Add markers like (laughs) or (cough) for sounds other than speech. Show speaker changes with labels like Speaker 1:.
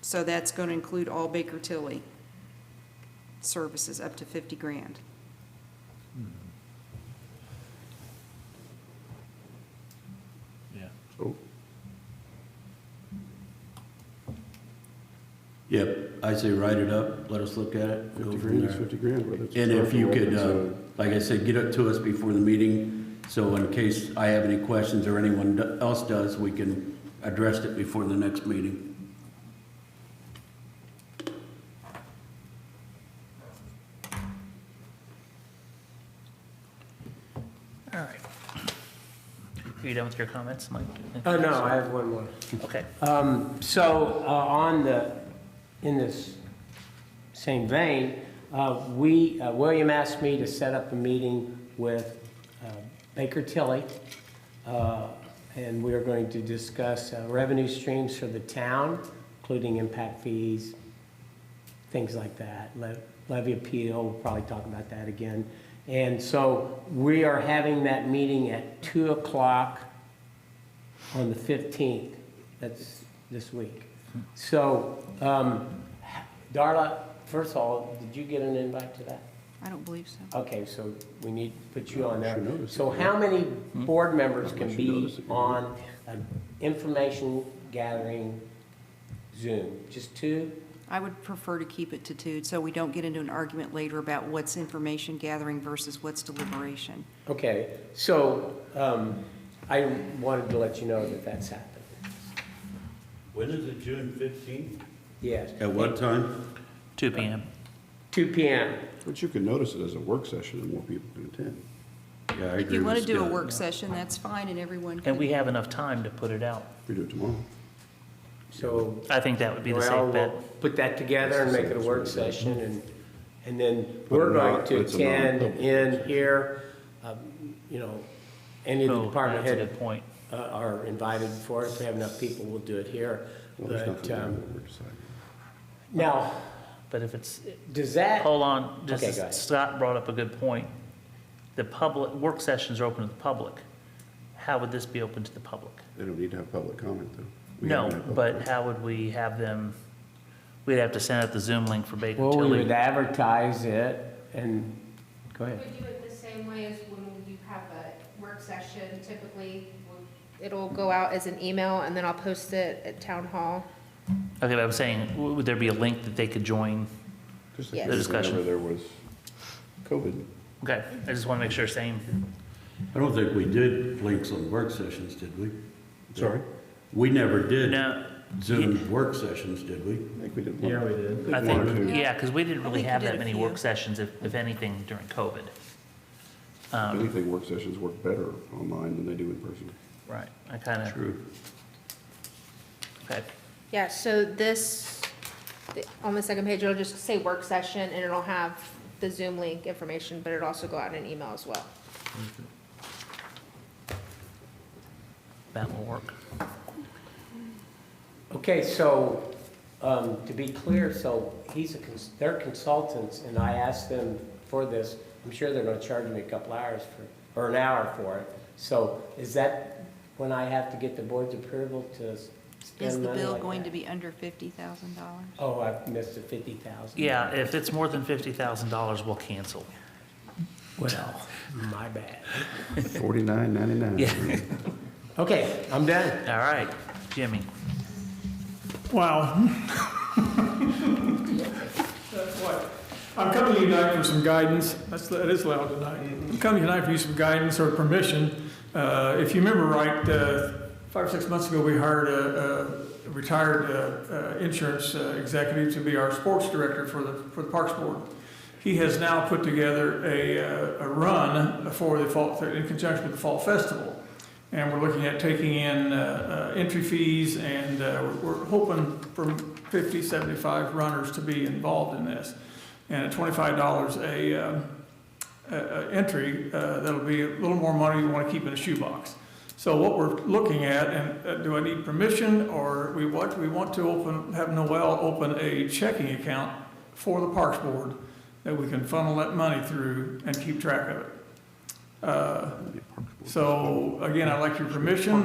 Speaker 1: So that's going to include all Baker Tilly services up to 50 grand.
Speaker 2: Yeah.
Speaker 3: Oh,
Speaker 4: Yep, I say write it up, let us look at it, go
Speaker 3: Fifty
Speaker 4: from
Speaker 3: grand is
Speaker 4: there.
Speaker 3: fifty grand, whether it's. a
Speaker 4: And if
Speaker 3: truck or
Speaker 4: you
Speaker 3: whether
Speaker 4: could,
Speaker 3: it's
Speaker 4: uh,
Speaker 3: a-
Speaker 4: like I said, get it to us before the meeting, so in case I have any questions or anyone do- else does, we can address it before the next meeting.
Speaker 2: All right. Are you done with your comments, Mike?
Speaker 5: Oh, no, I have one more.
Speaker 2: Okay.
Speaker 5: Um, So uh, on the, in this same vein, uh, we, uh, William asked me to set up a meeting with uh, Baker Tilly, uh, and we are going to discuss uh, revenue streams for the town, including impact fees, things like that. Le- Levy appeal, we'll probably talk about that again. And so we are having that meeting at 2 o'clock on the 15th. That's this week. So, um, Darla, first of all, did you get an invite to that?
Speaker 1: I don't believe so.
Speaker 5: Okay, so we need to put you on
Speaker 3: I should
Speaker 5: there.
Speaker 3: notice
Speaker 5: So how many board members can
Speaker 3: should
Speaker 5: be
Speaker 3: notice it.
Speaker 5: on an information gathering Zoom? Just two?
Speaker 1: I would prefer to keep it to two, so we don't get into an argument later about what's information gathering versus what's deliberation.
Speaker 5: Okay, so, um, I wanted to let you know that that's happened.
Speaker 4: When is it, June fifteenth?
Speaker 5: Yes,
Speaker 4: At what time?
Speaker 2: Two PM.
Speaker 5: two PM.
Speaker 2: uh,
Speaker 3: But you can notice it as a work session and more people can attend.
Speaker 4: Yeah, I agree
Speaker 1: If you
Speaker 4: with
Speaker 1: want to do a
Speaker 4: Scott.
Speaker 1: work session, that's fine, and everyone
Speaker 2: And we
Speaker 1: can,
Speaker 2: have enough time to put it out.
Speaker 3: We do it tomorrow.
Speaker 5: So
Speaker 2: I think that would be the
Speaker 5: Well,
Speaker 2: safe
Speaker 5: we'll
Speaker 2: bet.
Speaker 5: Put that together and make it a work session, and, and then we're
Speaker 3: But not-
Speaker 5: going to
Speaker 3: it's a non-
Speaker 5: attend in here, um, you know, any of the
Speaker 2: Oh,
Speaker 5: department
Speaker 2: That's a
Speaker 5: head
Speaker 2: good point.
Speaker 5: uh, are invited for it, if we have enough people, we'll do it here.
Speaker 3: Well, there's
Speaker 5: But,
Speaker 3: nothing
Speaker 5: um,
Speaker 3: that we're deciding.
Speaker 5: now,
Speaker 2: But if it's,
Speaker 5: does that,
Speaker 2: hold on,
Speaker 5: Okay, go ahead.
Speaker 2: just, Scott brought up a good point. The public, work sessions are open to the public. How would this be open to the public?
Speaker 3: They don't need to have public comment, though. We
Speaker 2: No,
Speaker 3: haven't had public
Speaker 2: but how would we have them, we'd have to send out the Zoom link for Baker
Speaker 5: well, we would
Speaker 2: Tilly.
Speaker 5: advertise it, and, go ahead.
Speaker 6: We do it the same way as when you have a work session, typically, it'll go out as an email, and then I'll post it at town hall.
Speaker 2: Okay, but I'm saying, w- would there be a link that they could join?
Speaker 3: Just like
Speaker 6: Yes.
Speaker 3: we did
Speaker 2: Discussion.
Speaker 3: Whenever there was COVID.
Speaker 2: Okay, I just want to make sure, same.
Speaker 4: I don't think we did links on work sessions, did we?
Speaker 3: Sorry,
Speaker 4: We never did
Speaker 2: No,
Speaker 4: Zoom work sessions, did we?
Speaker 3: I think we did. Yeah, we did.
Speaker 2: I
Speaker 3: One or
Speaker 2: think,
Speaker 3: two.
Speaker 2: yeah, because we didn't
Speaker 1: I
Speaker 2: really
Speaker 1: think we
Speaker 2: have
Speaker 1: did
Speaker 2: that
Speaker 1: a
Speaker 2: many
Speaker 1: few.
Speaker 2: work sessions, if, if anything, during COVID.
Speaker 3: I
Speaker 2: Um,
Speaker 3: think work sessions work better online than they do in person.
Speaker 2: Right, I kind of,
Speaker 4: True.
Speaker 2: okay,
Speaker 6: Yeah, so this, the- on the second page, it'll just say work session, and it'll have the Zoom link information, but it'll also go out in an email as well.
Speaker 2: that will work.
Speaker 5: Okay, so, um, to be clear, so he's a, cons- they're consultants, and I asked them for this. I'm sure they're gonna charge me a couple hours for, or an hour for it. So is that when I have to get the board's approval to s-
Speaker 1: is
Speaker 5: spend money
Speaker 1: the
Speaker 5: like
Speaker 1: bill going to
Speaker 5: that?
Speaker 1: be under $50,000?
Speaker 5: Oh, I missed the fifty thousand.
Speaker 2: Yeah, if it's more than fifty thousand dollars, we'll cancel.
Speaker 5: Well, my bad.
Speaker 3: Forty-nine ninety-nine.
Speaker 2: Yeah. (laughs)
Speaker 5: Okay, I'm done.
Speaker 2: All right, Jimmy.
Speaker 7: Wow. I'm coming tonight for some guidance. That's, that is loud tonight. I'm coming tonight for you some guidance or permission. Uh, if you remember right, uh, five or six months ago, we hired a, a retired uh, uh, insurance uh, executive to be our sports director for the, for the Parks Board. He has now put together a, uh, a run for the fall, in conjunction with the Fall Festival. And we're looking at taking in uh, uh, entry fees, and uh, we're we're hoping for 50, 75 runners to be involved in this. And at $25 a, um, a- a entry, uh, that'll be a little more money you want to keep in a shoebox. So what we're looking at, and uh, do I need permission, or we want, we want to open, have Noel open a checking account for the Parks Board that we can funnel that money through and keep track of it. Uh, so again, I'd like your permission